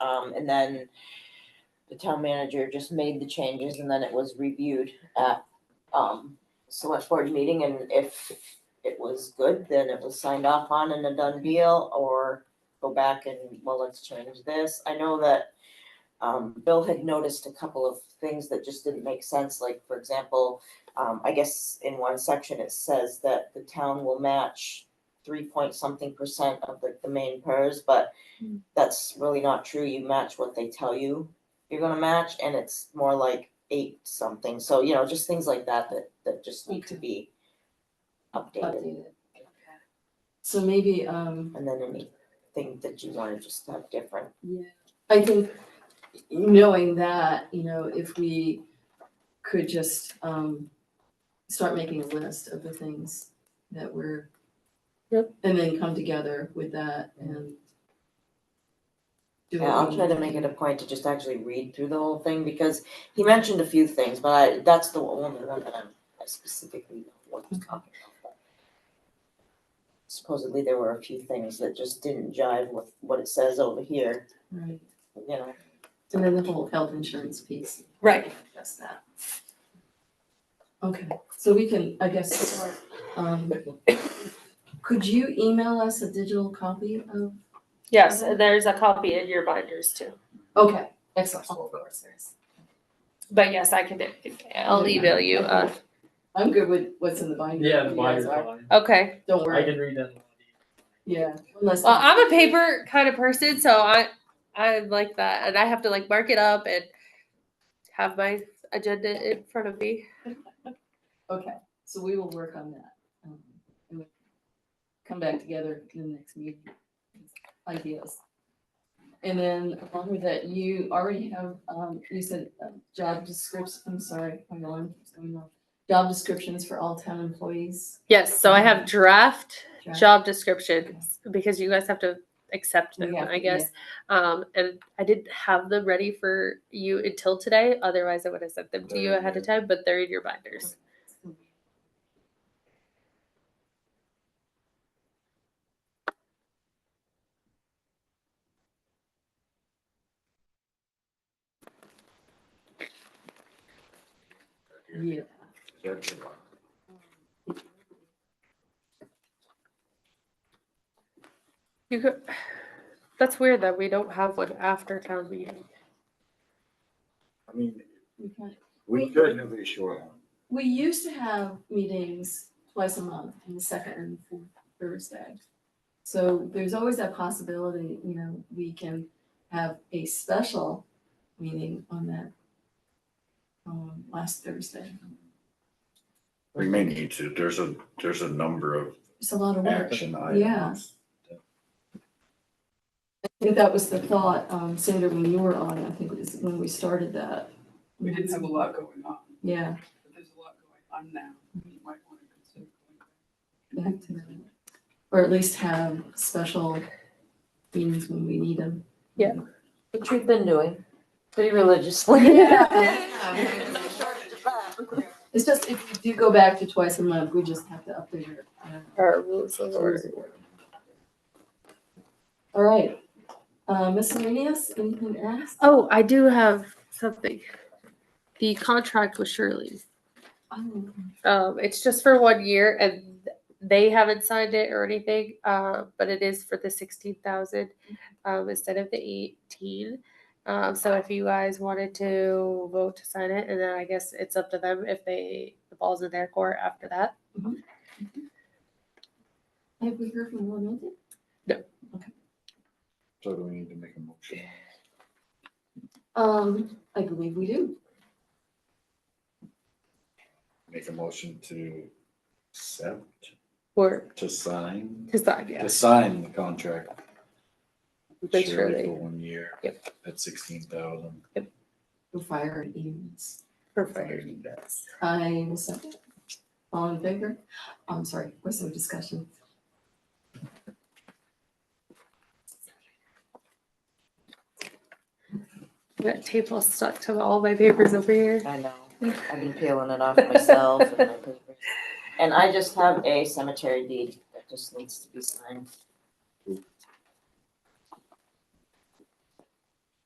Um, and then the town manager just made the changes and then it was reviewed at, um, select board meeting and if it was good, then it was signed off on and a done deal or go back and, well, let's change this. I know that, um, Bill had noticed a couple of things that just didn't make sense, like, for example, um, I guess in one section it says that the town will match three point something percent of the, the main PERS, but that's really not true. You match what they tell you you're gonna match and it's more like eight something. So, you know, just things like that that, that just need to be updated. updated. So maybe, um, And then anything that you wanna just have different. I think knowing that, you know, if we could just, um, start making a list of the things that we're. Yep. And then come together with that and. do what Yeah, I'll we try to need make it a point to just actually read through the whole thing because he mentioned a few things, but I, that's the only one that I'm I specifically know what he's talking about. but Supposedly there were a few things that just didn't jive with what it says over here, Right, you know. and then the whole health insurance piece, Right. that's that. Okay, so we can, I guess, um, could you email us a digital copy of, Yes, there's a copy in your binders too. okay, excellent. But yes, I can, do- I'll email you. uh, I'm good with what's in the binder. Yeah, the You guys buyer's are. line. uh, Okay. Don't I worry, can read that. yeah, unless. Well, I'm a paper kind of person, so I, I like that. And I have to like mark it up and have my agenda in front of me. Okay, so we will work on that. um, and we Come back together in the next meeting, ideas. And then along with that, you already have, um, you said uh, job descriptions, I'm sorry, my alarm keeps going off. Job descriptions for all town employees. Yes, so I have draft Job- job descriptions because you guys have to accept them, Yeah, I guess. Um, and I didn't have them ready for you until today. Otherwise, I would have sent them to you ahead of time, but they're in your binders. Yeah. You could, that's weird that we don't have one after town meeting. I mean, we can- we could have a short one. We used to have meetings twice a month on the second and fourth Thursday. So there's always that possibility, you know, we can have a special meeting on that um, last Thursday. We may need to, there's a, there's a number of It's a lot of work. action Yeah. items. I think that was the thought, um, Sandra, when you were on, I think it was when we started that. We didn't have a lot going on, Yeah, Mm-hmm. but there's a lot going on now. You might want to consider going back. back to that. Or at least have special meetings when we need them. Which we've been doing pretty religiously. It's just if we do go back to twice a month, we just have to update our, uh, Our rules of order. All right, uh, miscellaneous, anything else? Oh, I do have something. The contract with Shirley. Um, Um, it's just for one year and they haven't signed it or anything, uh, but it is for the sixteen thousand, um, instead of the eighteen. Um, so if you guys wanted to vote to sign it, and then I guess it's up to them if they, the ball's in their court after that. Have we heard from one minute? So do we need to make a motion? Um, I believe we do. Make a motion to accept, Or to sign, to sign, yeah. to sign the contract. with With Shirley Shirley. For one year. Yep. At sixteen thousand. The fire and EMS. Perfect. I will second. All in favor? I'm sorry, what's the discussion? That tape all stuck to all my papers over here. I know. I've been peeling it off myself and my papers. And I just have a cemetery deed that just needs to be signed.